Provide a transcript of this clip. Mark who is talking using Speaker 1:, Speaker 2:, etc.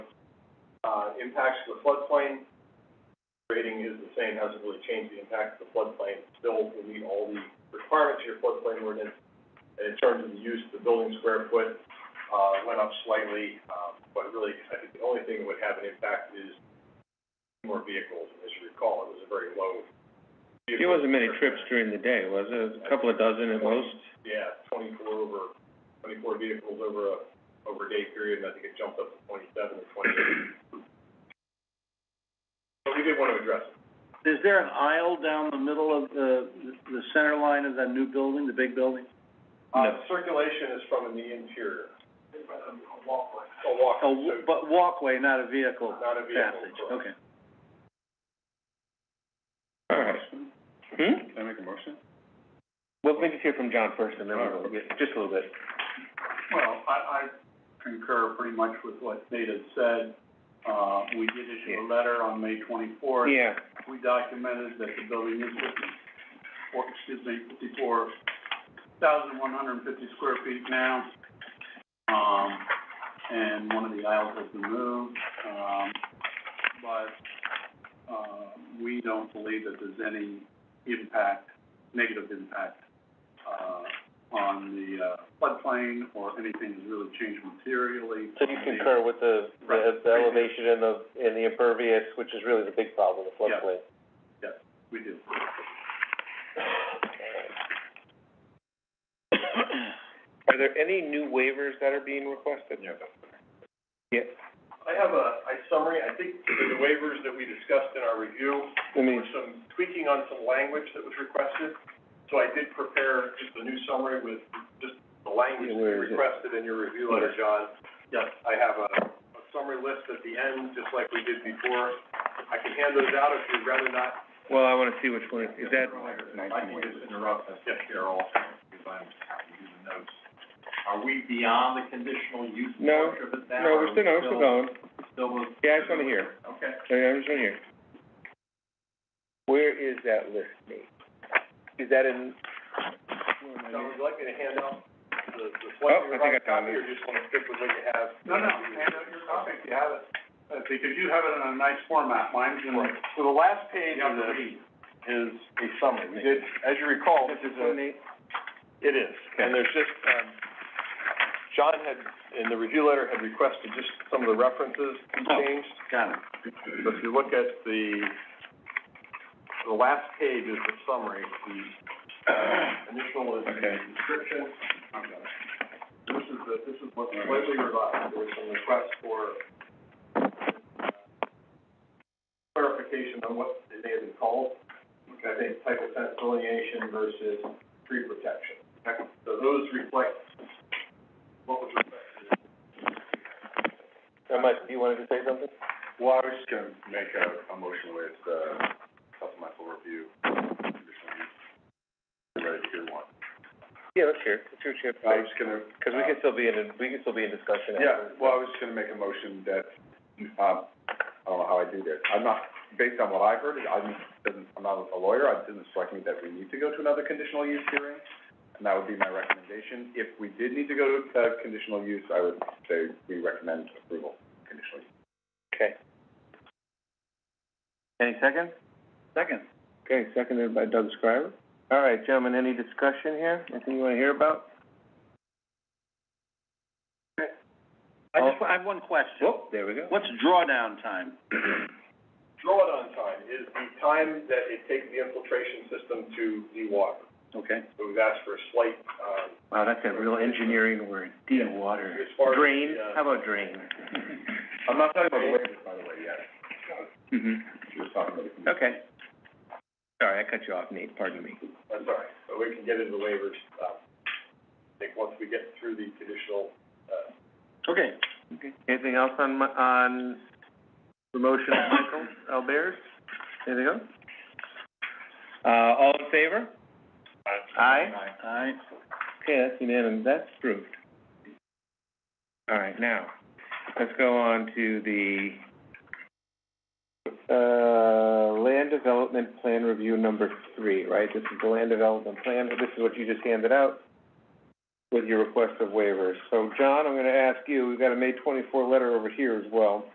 Speaker 1: Uh, impacts to the floodplain, rating is the same, hasn't really changed the impact to the floodplain. Still will meet all the requirements of your floodplain ordinance. And in terms of the use, the building square foot, uh, went up slightly, um, but really, I think the only thing that would have an impact is more vehicles. As you recall, it was a very low.
Speaker 2: There wasn't many trips during the day, was there? A couple of dozen at most?
Speaker 1: Yeah, twenty-four over, twenty-four vehicles over a, over a day period, and I think it jumped up to twenty-seven or twenty-eight. But we did want to address it.
Speaker 3: Is there an aisle down the middle of the, the center line of that new building, the big building?
Speaker 1: Uh,
Speaker 2: No.
Speaker 1: circulation is from in the interior. A walkway. A walkway,
Speaker 3: Oh, w- but walkway, not a vehicle
Speaker 1: so not a vehicle.
Speaker 3: passage, okay.
Speaker 2: All right. Hmm?
Speaker 1: Can I make a motion?
Speaker 2: Well, maybe hear from John first and then we'll, yeah, just a little bit.
Speaker 1: Well, I, I concur pretty much with what Nate had said. Uh, we did
Speaker 2: issue a
Speaker 1: letter on May twenty-fourth.
Speaker 2: Yeah,
Speaker 1: we documented that the building is fifty, or, excuse me, fifty-four thousand one hundred and fifty square feet now. Um, and one of the aisles has been moved, um, but, uh, we don't believe that there's any impact, negative impact, uh, on the uh, floodplain or anything that's really changed materially.
Speaker 2: so you concur with the, the, the elevation and the, and the impervious, which is really the big problem, the
Speaker 1: Yeah.
Speaker 2: floodplain.
Speaker 1: We do.
Speaker 2: Are there any new waivers that are being requested? No. Yeah,
Speaker 1: I have a, a summary, I think the waivers that we discussed in our review,
Speaker 2: I
Speaker 1: there
Speaker 2: mean,
Speaker 1: was some tweaking on some language that was requested. So I did prepare just a new summary with just the language
Speaker 2: Yeah,
Speaker 1: that you
Speaker 2: where is it?
Speaker 1: requested in your review letter, John. Yes, I have a, a summary list at the end, just like we did before. I can hand those out if you'd rather not.
Speaker 2: well, I wanna see which one, is that,
Speaker 1: I can just interrupt, yes, Carol, because I'm happy to the notes.
Speaker 4: Are we beyond the conditional use
Speaker 2: No,
Speaker 4: portion of it now?
Speaker 2: no, we're still, no, we're still going.
Speaker 4: Still,
Speaker 2: Yeah, I just wanna hear.
Speaker 4: okay.
Speaker 2: Yeah, I just wanna hear. Where is that list, Nate? Is that in?
Speaker 1: Now, would you like me to hand out the, the
Speaker 2: Oh,
Speaker 1: slightly
Speaker 2: I think I
Speaker 1: revised
Speaker 2: found
Speaker 1: copy,
Speaker 2: it.
Speaker 1: or just wanna stick with what you have?
Speaker 4: No, no, hand out your copy if you have it, uh, because you have it in a nice format, mine's in,
Speaker 1: Right. So the last
Speaker 4: you
Speaker 1: page
Speaker 4: have
Speaker 1: of
Speaker 4: to read.
Speaker 1: this is a summary. We did, as you recall, this is a, it is. And there's just, um, John had, in the review letter, had requested just some of the references changed.
Speaker 3: Got it.
Speaker 1: So if you look at the, the last page is the summary, the initial is the
Speaker 2: Okay.
Speaker 1: description. This is the, this is what slightly revised, there was some request for uh, clarification on what they have been called. I think type of fence delineation versus tree protection. So those reflect what was requested.
Speaker 2: Uh, Mike, you wanted to say something?
Speaker 1: Well, I was just gonna make a, a motion with, uh, supplemental review. Ready to hear one.
Speaker 2: Yeah, let's hear, it. let's hear what you have
Speaker 1: I
Speaker 2: to say,
Speaker 1: was just gonna.
Speaker 2: Uh, cause we can still be in, a- we can still be in discussion
Speaker 1: Yeah,
Speaker 2: after.
Speaker 1: well, I was just gonna make a motion that, um, I don't know how I do this. I'm not, based on what I've heard, I'm, doesn't, I'm not a lawyer, it doesn't strike me that we need to go to another conditional use hearing. And that would be my recommendation. If we did need to go to, uh, conditional use, I would say we recommend approval, conditional use.
Speaker 2: Okay. Any second?
Speaker 3: Second.
Speaker 2: Okay, seconded by Doug Scriver. All right, gentlemen, any discussion here? Anything you wanna hear about?
Speaker 3: I just,
Speaker 2: Oh.
Speaker 3: wa- I have one question.
Speaker 2: Whoop, there we go.
Speaker 3: What's drawdown time?
Speaker 1: Drawdown time is the time that it takes the infiltration system to dewater.
Speaker 3: Okay.
Speaker 1: So we've asked for a slight, um,
Speaker 2: Wow, that's a real engineering word, de-water.
Speaker 1: As far as,
Speaker 2: Drain,
Speaker 1: uh,
Speaker 2: how about drain?
Speaker 1: I'm not talking about the waivers, by the way, yet.
Speaker 3: Mm-hmm.
Speaker 2: hmm
Speaker 1: She was talking about the.
Speaker 2: okay. Sorry, I cut you off, Nate, pardon me.
Speaker 1: That's all right, but we can get into the waivers, um, I think once we get through the conditional, uh,
Speaker 3: Okay.
Speaker 2: Anything else on my, on the motion of Michael Albers? Anything else? Uh, all in favor?
Speaker 1: uh,
Speaker 2: Aye.
Speaker 3: Aye.
Speaker 2: Okay, that's unanimous, that's approved. All right, now, let's go on to the, uh, land development plan review number three, right? This is the land development plan, this is what you just handed out with your request of waivers. So, John, I'm gonna ask you, we've got a May twenty-four letter over here as well.